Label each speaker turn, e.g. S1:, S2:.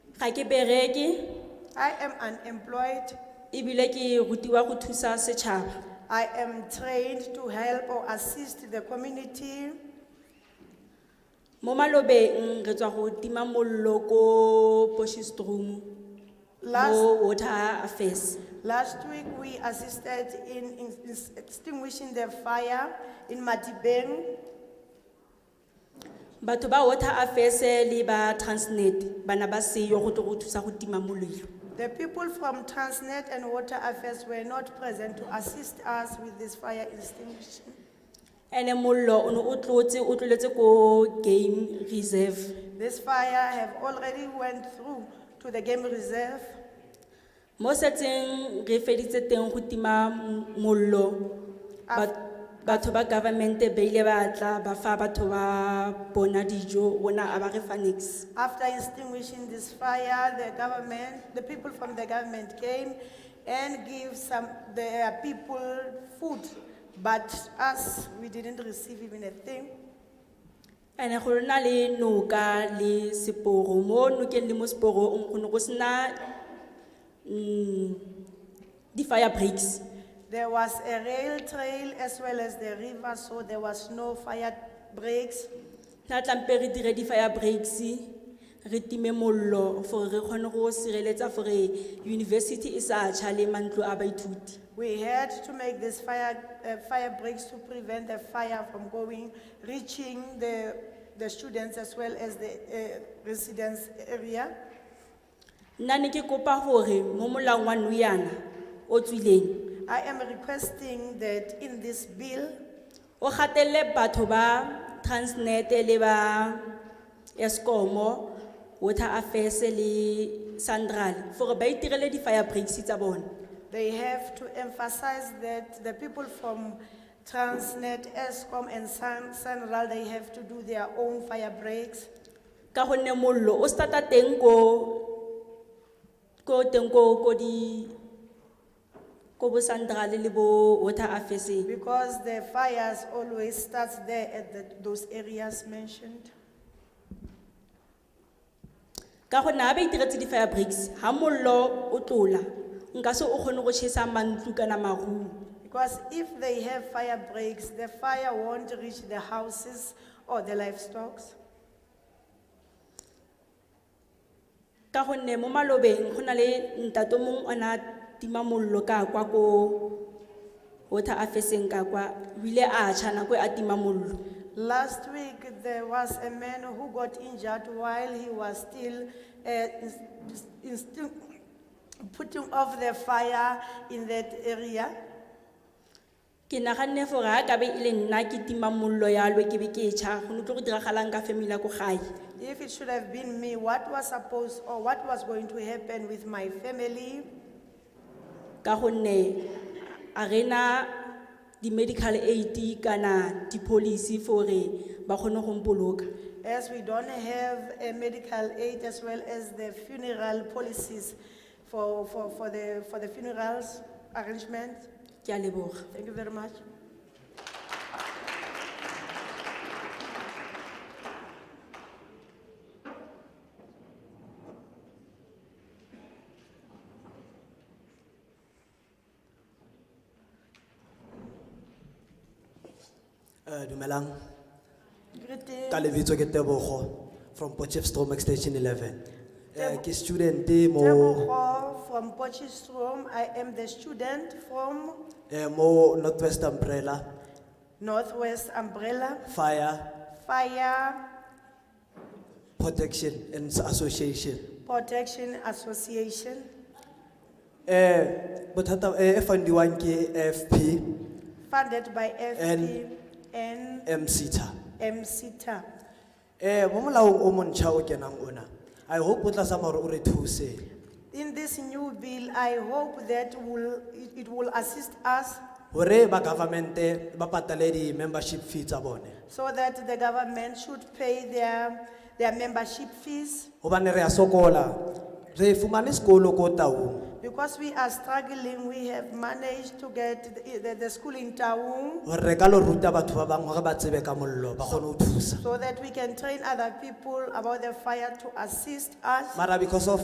S1: ga ke bereke
S2: I am unemployed.
S1: ebile ke rutiwa go thusa setšhaba
S2: I am trained to help or assist the community.
S1: mo malobeng re tswa go tima mollo ko boshistrom
S2: Last,
S1: mo water affairs
S2: last week, we assisted in in- in extinguishing the fire in Matibeng.
S1: batho ba water affairs le ba transnet bana ba seyo go tlo go thusa go tima molelo
S2: The people from Transnet and Water Affairs were not present to assist us with this fire extinguishing.
S1: ene mollo o ne o tlotse o tloletse ko game reserve
S2: This fire have already went through to the game reserve.
S1: mo setseng re feditse teng go tima m- mollo ba- batho ba government ba ile ba tla ba fa batho ba bona dijo bona a ba re fa niks
S2: After extinguishing this fire, the government, the people from the government came and give some, their people food, but us, we didn't receive even a thing.
S1: ene go na le noka le seporo mo nokeng le mo seporong go ne go sena um di-fire breaks
S2: There was a rail trail as well as the river, so there was no fire breaks.
S1: tla tlampe re dire di-fire breaks re time mollo gore re kgone go sireletsa gore university e sa tšha le mantlo a baithuti
S2: We had to make this fire, uh, fire breaks to prevent the fire from going, reaching the, the students as well as the uh, residents area.
S1: nna ne ke kopa gore mo molaong wa noyana o tswileng
S2: I am requesting that in this bill,
S1: o gatelele batho ba transnet le ba escomo water affairs le sandral gore ba itirele di-fire breaks tsa bona
S2: they have to emphasize that the people from Transnet, ESCOM and San, Sanral, they have to do their own fire breaks.
S1: ka gonne mollo o starta teng ko ko teng ko ko di ko bo sandral le bo water affairs
S2: Because the fires always starts there at the, those areas mentioned.
S1: ka gonne ga ba itiretse di-fire breaks ga mollo o tlola nka se o kgone go chesa mantlo kana maruo
S2: Because if they have fire breaks, the fire won't reach the houses or the livestock.
S1: ka gonne mo malobeng go na le ntate o mongwe o ne a tima mollo ka kwa ko water affairseng ka kwa o ile a tšha nako e a tima mollo
S2: Last week, there was a man who got injured while he was still uh, ins- instin- putting off the fire in that area.
S1: ke naganne gore ga kabe e le nna ke tima mollo yalo ke be ke e tšha go ne tlo go diragalang ka family ya ko gae
S2: If it should have been me, what was supposed or what was going to happen with my family?
S1: ka gonne a rena di-medical aid kana di-policy gore ba kgone go mpoloka
S2: As we don't have a medical aid as well as the funeral policies for, for, for the, for the funerals arrangement.
S1: ke a leboga
S2: Thank you very much.
S3: Eh, dumelang,
S2: Greetings.
S3: ka lebitso ke Tebogo from Potchefstroom Extension 11. Eh, ke studente mo,
S2: Tebogo from Potchefstroom. I am the student from
S3: eh, mo Northwest Umbrella
S2: Northwest Umbrella
S3: Fire
S2: Fire
S3: Protection and Association.
S2: Protection Association.
S3: Eh, bothata eh, e fundiwang ke FP
S2: funded by
S3: And-
S2: FPN
S3: MCTA.
S2: MCTA.
S3: Eh, mo molaong o montšha o kenang ona, I hope o tla zama gore o re thuse
S2: In this new bill, I hope that will, it- it will assist us
S3: gore ba government ba patale di-membership fee tsa bone.
S2: so that the government should pay their, their membership fees
S3: Hobane re a sokola, re fumane sekolo ko Taung.
S2: because we are struggling. We have managed to get the, the, the school in Taung
S3: gore re ka lo ruta batho ba bangwe gore ba tsebe ka mollo ba kgone go thusa
S2: so that we can train other people about the fire to assist us.
S3: mara because of